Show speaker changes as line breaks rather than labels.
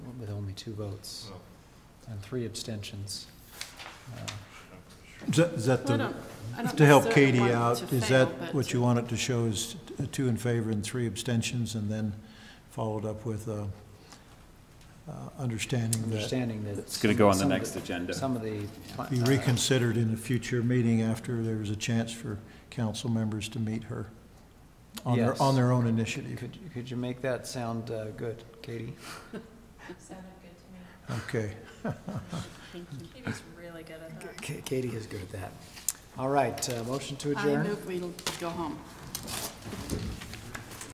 me two votes and three abstentions. Uh,
Is that- is that
Well, I
the,
don't, I don't
to help
necessarily
Katie
want it
out,
to
is
fail,
that
but-
what you want it to show is t- two in favor and three abstentions and then followed up with, uh, uh, understanding that
Understanding that.
It's going to go on the
some of
next agenda.
Some of the. pla-
be
uh,
reconsidered in a future meeting after there's a chance for council members to meet her on
Yes.
their, on their own initiative.
Could, could you make that sound uh, good, Katie?
Sounded good to me.
Okay.
He was really good at that.
Ka- Katie is good at that. All right, uh, motion to
I
adjourn.
move we go home.